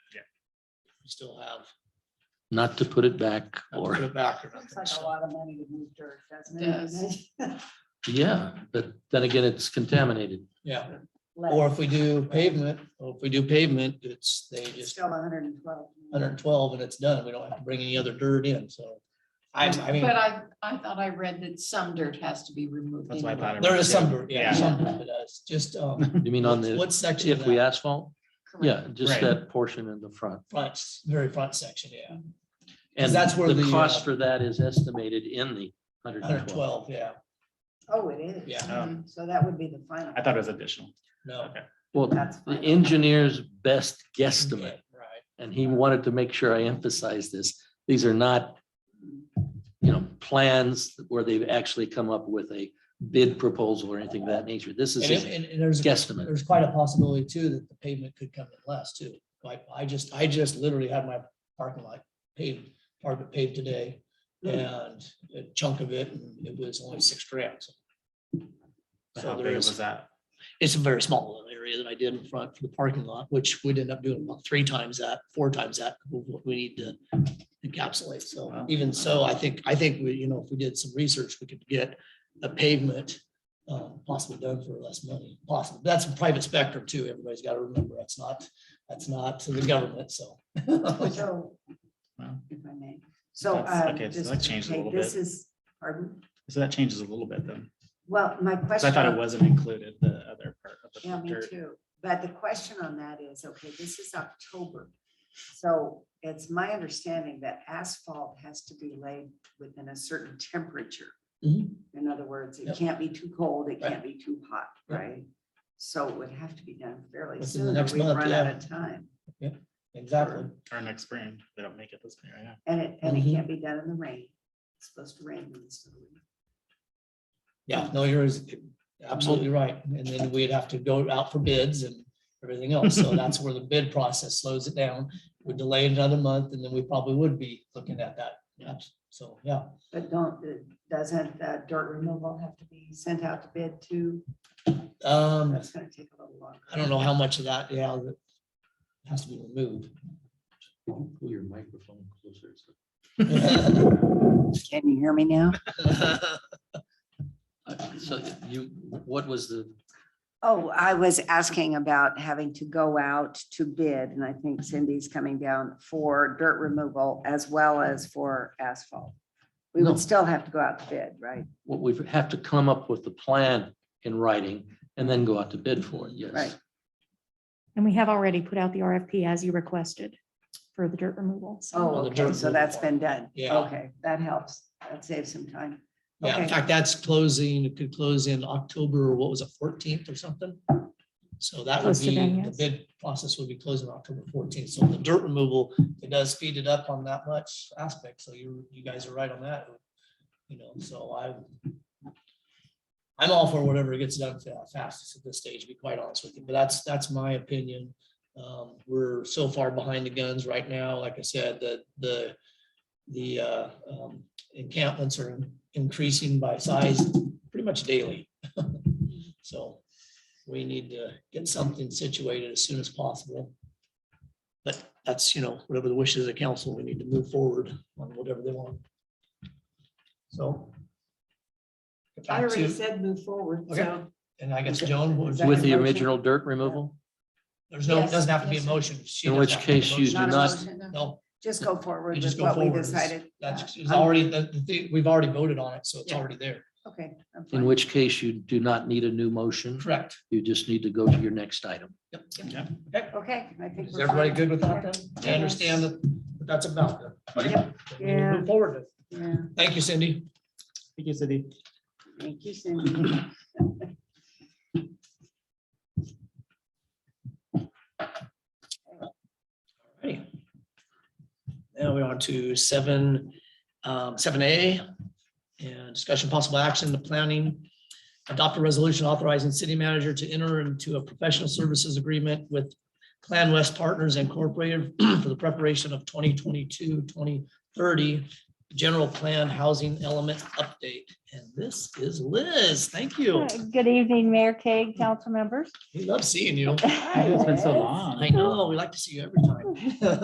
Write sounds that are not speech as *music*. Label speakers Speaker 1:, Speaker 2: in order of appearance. Speaker 1: still have,
Speaker 2: not to put it back
Speaker 1: have to put
Speaker 2: or,
Speaker 1: it back or nothing.
Speaker 3: Looks like a
Speaker 1: So
Speaker 3: lot of money to move dirt, doesn't it? *laughs*
Speaker 4: Does.
Speaker 2: yeah, but then again, it's contaminated.
Speaker 1: Yeah,
Speaker 3: Left.
Speaker 1: or if we do pavement, or if we do pavement, it's, they just
Speaker 3: Still hundred and twelve.
Speaker 1: hundred and twelve and it's done. We don't have to bring any other dirt in, so. I, I mean,
Speaker 4: But I, I thought I read that some dirt has to be removed.
Speaker 5: That's what I thought. I
Speaker 4: anyway.
Speaker 5: read,
Speaker 1: there is
Speaker 5: yeah.
Speaker 1: some dirt, yeah,
Speaker 5: Yeah.
Speaker 1: some dirt, but it's just, um,
Speaker 2: You mean on the,
Speaker 1: what section
Speaker 2: if
Speaker 1: of
Speaker 2: we
Speaker 1: that
Speaker 2: asphalt? Yeah, just
Speaker 5: Right.
Speaker 2: that portion in the front.
Speaker 1: front, very front section, yeah,
Speaker 2: And
Speaker 1: that's where
Speaker 2: the
Speaker 1: the,
Speaker 2: cost
Speaker 1: uh,
Speaker 2: for that is estimated in the hundred
Speaker 1: hundred
Speaker 2: and
Speaker 1: and
Speaker 2: twelve.
Speaker 1: twelve, yeah,
Speaker 3: Oh, it is.
Speaker 1: Yeah.
Speaker 5: Um,
Speaker 3: So that would be the final.
Speaker 5: I thought it was additional.
Speaker 1: no.
Speaker 2: Well,
Speaker 3: That's
Speaker 2: the
Speaker 3: fine.
Speaker 2: engineer's best
Speaker 1: Yeah,
Speaker 2: guesstimate,
Speaker 1: Right.
Speaker 2: and he wanted to make sure I emphasize this, these are not, you know, plans where they've actually come up with a bid proposal or anything of that nature. This is
Speaker 1: And, it-
Speaker 2: a
Speaker 1: and, and there's,
Speaker 2: guesstimate.
Speaker 1: there's quite a possibility too that the pavement could come in less too. Like, I just, I just literally had my parking lot paved, part of it paved today. And a chunk of it, and it was only six grams.
Speaker 5: How
Speaker 1: So
Speaker 5: big
Speaker 1: there
Speaker 5: was
Speaker 1: is,
Speaker 5: that?
Speaker 1: it's a very small little area that I did in front for the parking lot, which we'd end up doing about three times that, four times that, of what we need to encapsulate. So
Speaker 5: Wow.
Speaker 1: even so, I think, I think we, you know, if we did some research, we could get a pavement uh, possibly done for less money, possible. That's a private spectrum too. Everybody's got to remember, that's not, that's not to the government, so. *laughs*
Speaker 3: So,
Speaker 5: Wow.
Speaker 3: if I may, so.
Speaker 5: That's-
Speaker 3: um,
Speaker 5: okay, so
Speaker 3: just
Speaker 5: that
Speaker 3: to
Speaker 5: changed a
Speaker 3: take-
Speaker 5: little
Speaker 3: This
Speaker 5: bit.
Speaker 3: is, pardon,
Speaker 5: So that changes a little bit then.
Speaker 3: well, my
Speaker 5: So
Speaker 3: question.
Speaker 5: I thought it wasn't included, the other part of
Speaker 3: Yeah,
Speaker 5: the
Speaker 3: me
Speaker 5: dirt.
Speaker 3: too. But the question on that is, okay, this is October. So it's my understanding that asphalt has to be laid within a certain temperature.
Speaker 1: Mhm.
Speaker 3: In other words, it
Speaker 1: Yep.
Speaker 3: can't be too cold, it
Speaker 1: Right.
Speaker 3: can't be too hot,
Speaker 1: Right.
Speaker 3: right? So it would have to be done fairly
Speaker 1: Within the
Speaker 3: soon. or
Speaker 1: next
Speaker 3: We
Speaker 1: month,
Speaker 3: run out
Speaker 1: yeah.
Speaker 3: of time.
Speaker 1: Exactly.
Speaker 5: Or next spring, if they don't make it this year, yeah.
Speaker 3: And it, and it
Speaker 1: Mhm.
Speaker 3: can't be done in the rain. It's supposed to rain. when it's done.
Speaker 1: Yeah, no, you're as- absolutely right. And then we'd have to go out for bids and everything else. So that's where the bid process slows it down. We delay it another month and then we probably would be looking at that. Yes. So, yeah,
Speaker 3: But don't, uh, doesn't uh, dirt removal have to be sent out to bid too?
Speaker 1: um,
Speaker 3: That's gonna take a little longer.
Speaker 1: I don't know how much of that, yeah, that has to be removed.
Speaker 2: Pull your microphone closer. so-
Speaker 3: Can you hear me now?
Speaker 2: Uh, So you, what was the,
Speaker 3: Oh, I was asking about having to go out to bid, and I
Speaker 1: Mm-hmm.
Speaker 3: think Cindy's coming down for dirt removal as well as for asphalt. We
Speaker 2: No.
Speaker 3: would still have to go out to bid, right?
Speaker 2: what we have to come up with the plan in writing and then go out to bid for it, yes.
Speaker 3: Right.
Speaker 6: And we have already put out the RFP as you requested for the dirt removal. so-
Speaker 3: Oh,
Speaker 1: the
Speaker 3: okay,
Speaker 1: dirt
Speaker 3: so that's been done.
Speaker 1: Yeah.
Speaker 3: Okay, that helps. That saves some time.
Speaker 1: Yeah, in
Speaker 3: Okay.
Speaker 1: fact, that's closing, it could close in October, what was it, fourteenth or something? So that would
Speaker 6: Close to
Speaker 1: be,
Speaker 6: then,
Speaker 1: the
Speaker 6: yes.
Speaker 1: bid process would be closing October fourteenth. So the dirt removal, it does speed it up on that much aspect. So you, you guys are right on that. You know, so I I'm all for whatever gets done fa- fastest at this stage, to be quite honest with you, but that's, that's my opinion. Um, we're so far behind the guns right now, like I said, the, the, the, uh, um, encampments are increasing by size pretty much daily. *laughs* So we need to get something situated as soon as possible. But that's, you know, whatever the wishes of council, we need to move forward on whatever they want. So. get back to-
Speaker 3: said move forward,
Speaker 1: Okay. so- and I guess Joan, what was-
Speaker 3: Is that
Speaker 2: With the
Speaker 3: your motion?
Speaker 2: original dirt removal,
Speaker 1: there's no,
Speaker 4: Yes,
Speaker 1: doesn't have to be a
Speaker 4: yes, sir.
Speaker 1: motion. She
Speaker 2: In
Speaker 1: does
Speaker 2: which
Speaker 1: have to be a
Speaker 2: case you
Speaker 1: motion.
Speaker 2: do not-
Speaker 1: No,
Speaker 3: Just go
Speaker 1: you
Speaker 3: forward with
Speaker 1: just go
Speaker 3: what we
Speaker 1: forward. It's-
Speaker 3: decided. Uh,
Speaker 1: That's, it's
Speaker 3: I'm-
Speaker 1: already, the, the thing, we've already voted on it, so it's
Speaker 3: Yeah.
Speaker 1: already there.
Speaker 3: Okay. I'm
Speaker 2: in
Speaker 3: fine.
Speaker 2: which case you do not need a new motion.
Speaker 1: Correct.
Speaker 2: You just need to go to your next item.
Speaker 1: Yep.
Speaker 5: Yeah.
Speaker 3: Okay, I think.
Speaker 1: Is
Speaker 3: we're
Speaker 1: everybody
Speaker 3: fine.
Speaker 1: good with that then? I understand that, but that's about it. We need to
Speaker 3: Yeah.
Speaker 1: Move forward.
Speaker 3: Yeah,
Speaker 1: Thank you, Cindy.
Speaker 5: Thank you, Cindy.
Speaker 3: thank you, Cindy.
Speaker 1: *laughs* Alrighty. Now we're on to seven, um, seven A. And discussion possible action, the planning. Adopt a resolution authorizing city manager to enter into a professional services agreement with Plan West Partners Incorporated *clears throat* for the preparation of 2022-2030 general plan housing element update. And this is Liz. Thank you.
Speaker 7: Good evening, Mayor Keg, council members.
Speaker 1: We love seeing you.
Speaker 5: It's been so long.
Speaker 1: I know, we like to see you every time.